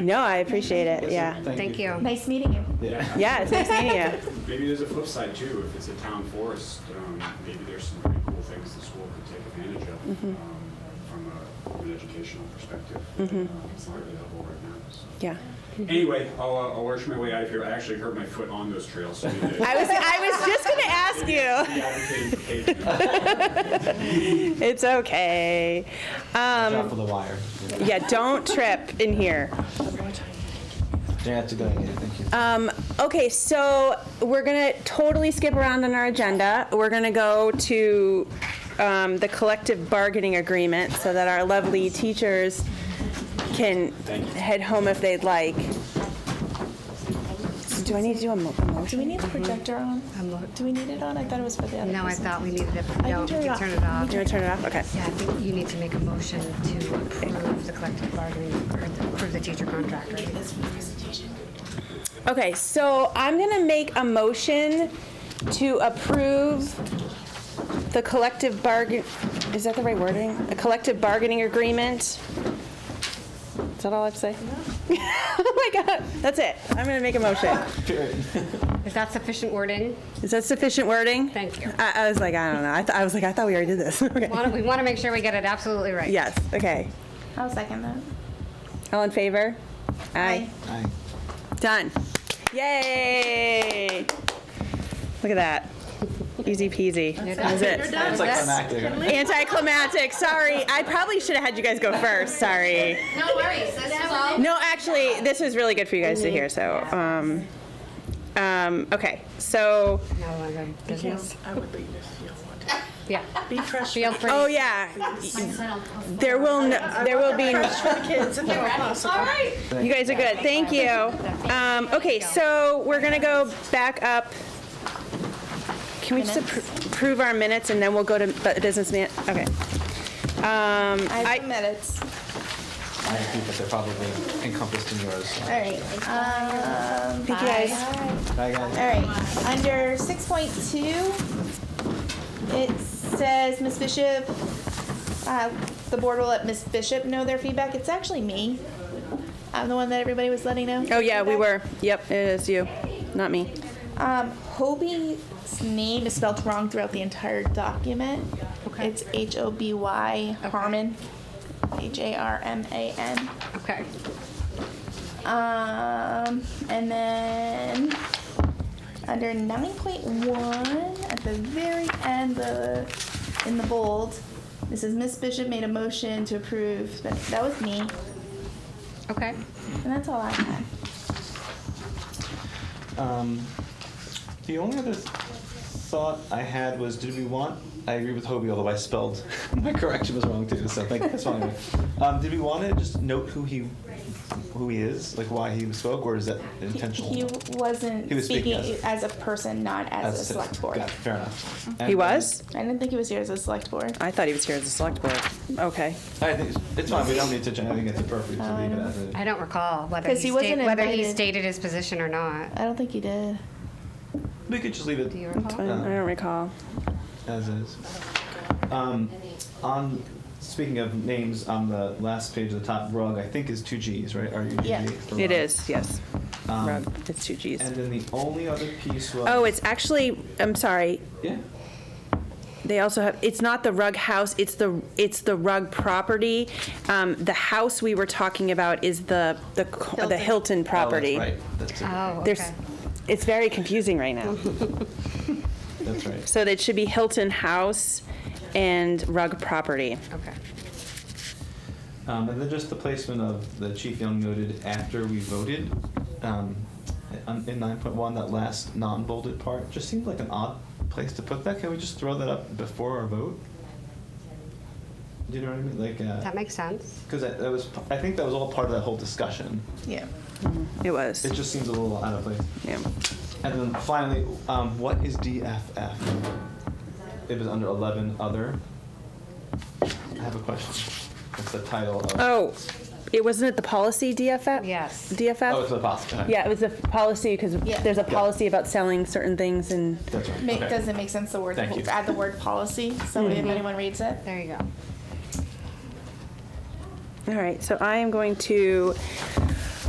No, I appreciate it. Yeah. Thank you. Nice meeting you. Yeah. Yeah, it's nice meeting you. Maybe there's a flip side too, if it's a town forest, um, maybe there's some pretty cool things the school could take advantage of, Mm-hmm. um, from a, from an educational perspective. Mm-hmm. that, um, Aren't available right now, so. Yeah. Anyway, I'll, uh, I'll work my way out of here. I actually hurt my foot on those trails, so. maybe I was I was just gonna ask you. the advocating for Kate- It's okay. Um, Drop of the wire. yeah, don't trip in here. Yeah, that's a good idea. Thank you. Um, okay, so we're gonna totally skip around on our agenda. We're gonna go to um, the collective bargaining agreement so that our lovely teachers can Thank you. head home if they'd like. Do I need to do a mo- a motion? Do we need the projector on? Do we need it on? I thought it was for the other. No, I person. thought we needed it, I no, can we can turn turn it it off. Do you Yeah, want to turn it off? Okay. I think you need to make a motion to approve the collective bargaining, or approve the teacher contract, right? Okay, so I'm gonna make a motion to approve the collective bargain, is that the right wording? A collective bargaining agreement? Is that all I have to say? Oh my god, that's it. I'm gonna make a motion. Is that sufficient wording? Is that sufficient wording? Thank you. I, I was like, I don't know. I, th- I was like, I thought we already did this. Okay. Wanna- We want to make sure we get it absolutely right. Yes, okay. I'll second that. All in favor? Aye. Aye. Done. Yay! Look at that. Easy peasy. You're That was done. it. You're done. It's like That's- climactic. Anticlimactic. Sorry, I probably should have had you guys go first. Sorry. No worries, this is all. No, actually, this was really good for you guys to hear. So, um, um, okay. So, No longer business. I would leave if you don't want to. Yeah, Be fresh. feel free. oh yeah, there will no, there will be. Fresh for the kids if at all possible. You guys are good. Thank you. Um, okay, so we're gonna go back up. Can we just appro- approve our minutes and then we'll go to bu- business man? Okay. Um, I I- have the minutes. I agree, but they're probably encompassed in yours. so. All right. Um, Thank you guys. Bye, guys. All right. Under six point two, it says Miss Bishop. Uh, the board will let Miss Bishop know their feedback. It's actually me. I'm the one that everybody was letting know. Oh yeah, we feedback. were. Yep, it is you, not me. Um, Hobie's name is spelled wrong throughout the entire document. Okay. It's H O B Y Okay. Harmon. H A R M A N. Okay. Um, and then under 9.1, at the very end, the in the bold, this is Miss Bishop made a motion to approve. That, that was me, Okay. and that's all I had. Um, the only other th- thought I had was, did we want? I agree with Hobie, although I spelled my correction was wrong too. So thank that's fine. Um, did we want to just note who he, who he is, like why he spoke, or is that intentional? He wasn't He was speaking speaking as a person, not as, That's a it. select board. Got it, fair enough. And He then- was. I didn't think he was here as a select board. I thought he was here as a select board. Okay. I think it's- it's fine. We don't need to. change- I think it's appropriate to leave it Um, as it. I don't recall whether 'Cause he he wasn't stated, whether he invited. stated his position or not. I don't think he did. We could just leave Do you it That's fine. recall? I don't recall. as is. Um, on speaking of names, on the last page of the top, rug I think is two G's, right? Are you? Yeah. It is, yes. Rug. It's two Um, And Gs. then the only other piece was. Oh, it's actually, I'm sorry, Yeah. they also have, it's not the rug house, it's the, it's the rug property. Um, the house we were talking about is the, the, co- the Hilton. Hilton property. Oh, that's right. Oh, There's, okay. Mm-hmm. it's very confusing right now. That's right. That's right. So it should be Hilton House and rug property. Okay. Um, and then just the placement of the chief young noted after we voted. Um, on- in 9.1, that last non-bolded part just seemed like an odd place to put that. Can we just throw that up before our vote? Do you know what I mean? Like. Uh, That makes sense. Because that, that was, I think that was all part of that whole discussion. Yeah. It was, It just seems a little out of place. yeah. And then finally, um, what is DFF? It was under 11 other. I have a question. It's the title of. Oh, it wasn't it the policy DFF? Yes. DFF? Oh, it's the policy. Yeah, it was a policy, because Yeah. there's a policy about selling certain things and, That's right. Make, okay. Doesn't make sense. The word Thank you. add the word policy. So if anyone reads it, There you go. all right, so I am going to